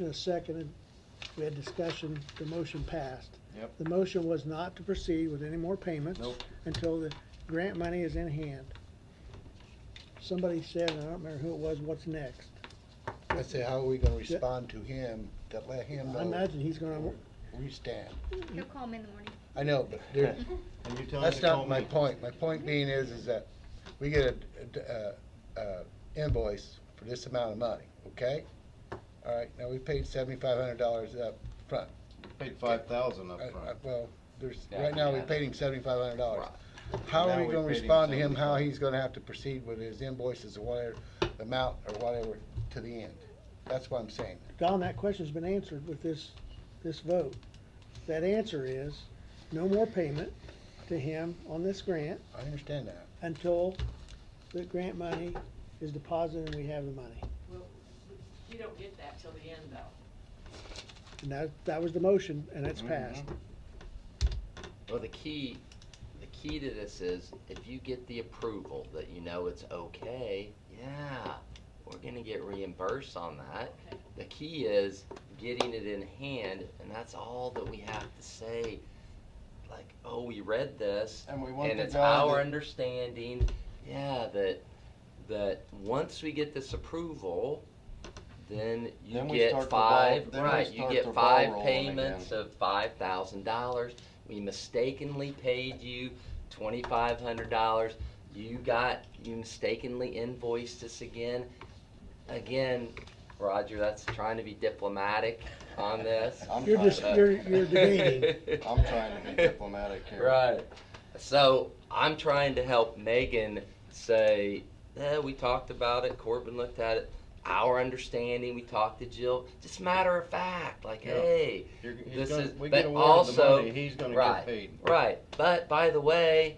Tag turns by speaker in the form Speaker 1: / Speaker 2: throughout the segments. Speaker 1: Motion is seconded, we had discussion, the motion passed.
Speaker 2: Yep.
Speaker 1: The motion was not to proceed with any more payments.
Speaker 2: Nope.
Speaker 1: Until the grant money is in hand. Somebody said, and I don't remember who it was, what's next?
Speaker 3: I say, how are we gonna respond to him, to let him
Speaker 1: I
Speaker 3: know
Speaker 1: imagine he's gonna,
Speaker 3: we stand?
Speaker 4: He'll call him in the morning.
Speaker 3: I know, but there,
Speaker 2: And you tell him to
Speaker 3: that's
Speaker 2: call
Speaker 3: not my
Speaker 2: me.
Speaker 3: point. My point being is, is that we get a, a, a invoice for this amount of money, okay? All right, now we paid seventy-five hundred dollars up front.
Speaker 2: Paid five thousand up
Speaker 3: I- I-
Speaker 2: front.
Speaker 3: Well, there's,
Speaker 2: Yeah,
Speaker 3: right now, we
Speaker 2: yeah.
Speaker 3: paid him seventy-five hundred dollars. How are
Speaker 2: Now
Speaker 3: we
Speaker 2: we
Speaker 3: gonna
Speaker 2: paid him
Speaker 3: respond to him, how
Speaker 2: 75.
Speaker 3: he's gonna have to proceed with his invoices or whatever, amount or whatever, to the end? That's what I'm saying.
Speaker 1: Don, that question's been answered with this, this vote. That answer is, no more payment to him on this grant
Speaker 3: I understand that.
Speaker 1: until the grant money is deposited and we have the money.
Speaker 5: You don't get that till the end though.
Speaker 1: And that, that was the motion, and it's
Speaker 2: Mm-hmm.
Speaker 1: passed.
Speaker 6: Well, the key, the key to this is if you get the approval that you know it's okay, yeah, we're gonna get reimbursed on that.
Speaker 5: Okay.
Speaker 6: The key is getting it in hand, and that's all that we have to say. Like, oh, we read this,
Speaker 2: And we want
Speaker 6: and
Speaker 2: the
Speaker 6: it's
Speaker 2: guy
Speaker 6: our
Speaker 2: that-
Speaker 6: understanding, yeah, that, that once we get this approval, then you
Speaker 2: Then we
Speaker 6: get
Speaker 2: start the ball-
Speaker 6: five,
Speaker 2: then we
Speaker 6: right, you
Speaker 2: start the
Speaker 6: get
Speaker 2: ball
Speaker 6: five
Speaker 2: rolling again.
Speaker 6: payments of five thousand dollars. We mistakenly paid you twenty-five hundred dollars. You got, you mistakenly invoiced us again. Again, Roger, that's trying to be diplomatic on this.
Speaker 2: I'm
Speaker 1: You're
Speaker 2: trying
Speaker 1: just-
Speaker 2: to-
Speaker 1: you're- you're debating.
Speaker 2: I'm trying to be diplomatic here.
Speaker 6: Right. So I'm trying to help Megan say, eh, we talked about it, Corbin looked at it, our understanding, we talked to Jill, just matter of fact, like,
Speaker 2: Yeah.
Speaker 6: hey,
Speaker 2: You're, he's
Speaker 6: this
Speaker 2: gonna,
Speaker 6: is,
Speaker 2: we
Speaker 6: but
Speaker 2: get awarded the
Speaker 6: also,
Speaker 2: money, he's gonna get
Speaker 6: right,
Speaker 2: paid.
Speaker 6: right. But by the way,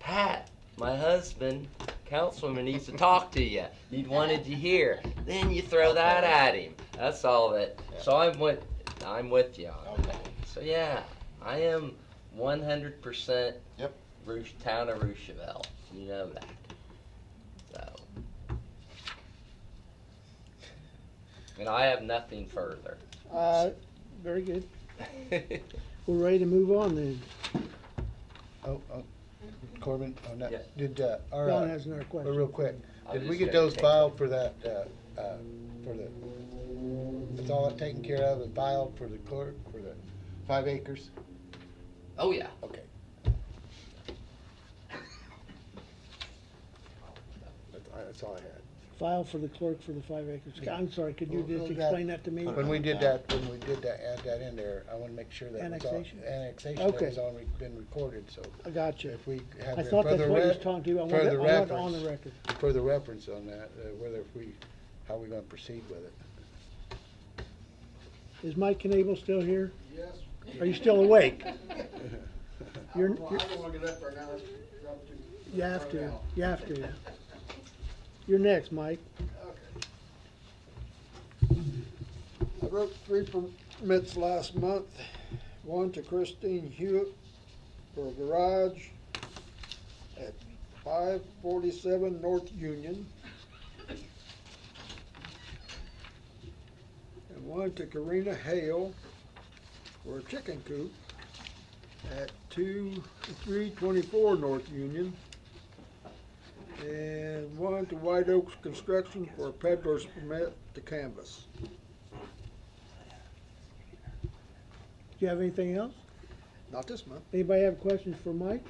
Speaker 6: Pat, my husband, councilman, needs to talk to you. He wanted you here. Then you throw that at him. That's all that. So I'm with, I'm with you on that.
Speaker 2: Okay.
Speaker 6: So yeah, I am one hundred percent.
Speaker 2: Yep.
Speaker 6: Roosh, town of Roosevelt, you know that. So. And I have nothing further.
Speaker 1: Uh, very good. We're ready to move on then.
Speaker 3: Oh, oh, Corbin, on
Speaker 6: Yeah.
Speaker 3: that, did, uh, our,
Speaker 1: Don
Speaker 3: uh,
Speaker 1: has another
Speaker 3: but
Speaker 1: question.
Speaker 3: real quick,
Speaker 6: I'm
Speaker 3: did we
Speaker 6: just
Speaker 3: get
Speaker 6: gonna
Speaker 3: those
Speaker 6: take-
Speaker 3: filed for that, uh, uh, for the, it's all taken care of and filed for the clerk, for the five acres?
Speaker 6: Oh yeah.
Speaker 3: Okay. That's, I- that's all I had.
Speaker 1: File for the clerk for the five acres.
Speaker 3: Yeah.
Speaker 1: I'm sorry, could you
Speaker 3: Well,
Speaker 1: just
Speaker 3: that-
Speaker 1: explain that to me?
Speaker 2: Put it
Speaker 3: When we
Speaker 2: on
Speaker 3: did
Speaker 2: down.
Speaker 3: that, when we did that, add that in there, I wanna make sure that was all.
Speaker 1: Annexation?
Speaker 3: Annexation, that
Speaker 1: Okay.
Speaker 3: was all re- been recorded, so
Speaker 1: I got you.
Speaker 3: if we have
Speaker 1: I
Speaker 3: a
Speaker 1: thought that's
Speaker 3: further
Speaker 1: what he was
Speaker 3: re-
Speaker 1: talking to. I want it, I
Speaker 3: further
Speaker 1: want it on the
Speaker 3: reference,
Speaker 1: record.
Speaker 3: further reference on that, uh, whether if we, how we gonna proceed with it.
Speaker 1: Is Mike Knable still here?
Speaker 7: Yes.
Speaker 1: Are you still awake? You're,
Speaker 7: Well,
Speaker 1: you're-
Speaker 7: I don't wanna get up for an hour, drop to.
Speaker 1: you have to, you have to. You're next, Mike.
Speaker 7: I wrote three permits last month, one to Christine Hewitt for a garage at five forty-seven North Union. And one to Karina Hale for a chicken coop at two, three twenty-four North Union. And one to White Oaks Construction for a peddler's permit to canvas.
Speaker 1: Do you have anything else?
Speaker 7: Not this month.
Speaker 1: Anybody have questions for Mike?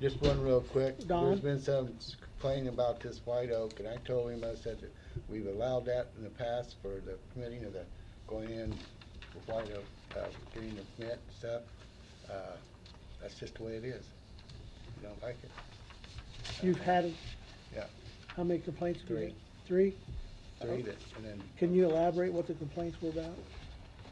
Speaker 3: Just one real quick.
Speaker 1: Don?
Speaker 3: There's been some complaining about this white oak, and I told him, I said that we've allowed that in the past for the permitting of the, going in with white oak, uh, getting the permit and stuff. Uh, That's just the way it is. You don't like it?
Speaker 1: You've had,
Speaker 3: Yeah.
Speaker 1: how many complaints have you
Speaker 3: Three.
Speaker 1: had? Three? Oh.
Speaker 3: Three that, and then,
Speaker 1: Can you elaborate what the complaints were about?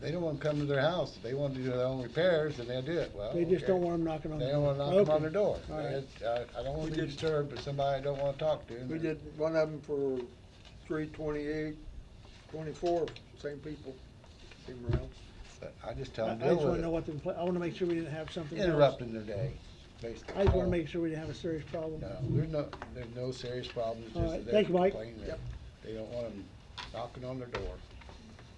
Speaker 3: they don't wanna come to their house. If They wanna do their own repairs, and they'll do it. Well,
Speaker 1: They just
Speaker 3: okay.
Speaker 1: don't want them knocking on the
Speaker 3: They
Speaker 1: door.
Speaker 3: don't wanna knock 'em
Speaker 1: Okay.
Speaker 3: on their door.
Speaker 1: All right.
Speaker 3: It- I, I don't
Speaker 7: We
Speaker 3: wanna be
Speaker 7: did-
Speaker 3: disturbed by somebody I don't wanna talk to. and
Speaker 7: We
Speaker 3: they're-
Speaker 7: did one of them for three twenty-eight, twenty-four, same people came around.
Speaker 3: but I just
Speaker 1: I
Speaker 3: tell
Speaker 1: I
Speaker 3: them,
Speaker 1: just
Speaker 3: deal
Speaker 1: wanna
Speaker 3: with
Speaker 1: know
Speaker 3: it.
Speaker 1: what the, compla- I wanna make sure we didn't have something else.
Speaker 3: Interrupting their day, basically.
Speaker 1: I just wanna
Speaker 3: Oh.
Speaker 1: make sure we didn't have a serious problem.
Speaker 3: No, there's no, there's no serious problems,
Speaker 1: All
Speaker 3: just
Speaker 1: right,
Speaker 3: that they're
Speaker 1: thank you, Mike.
Speaker 3: complaining that they don't want them knocking on their door.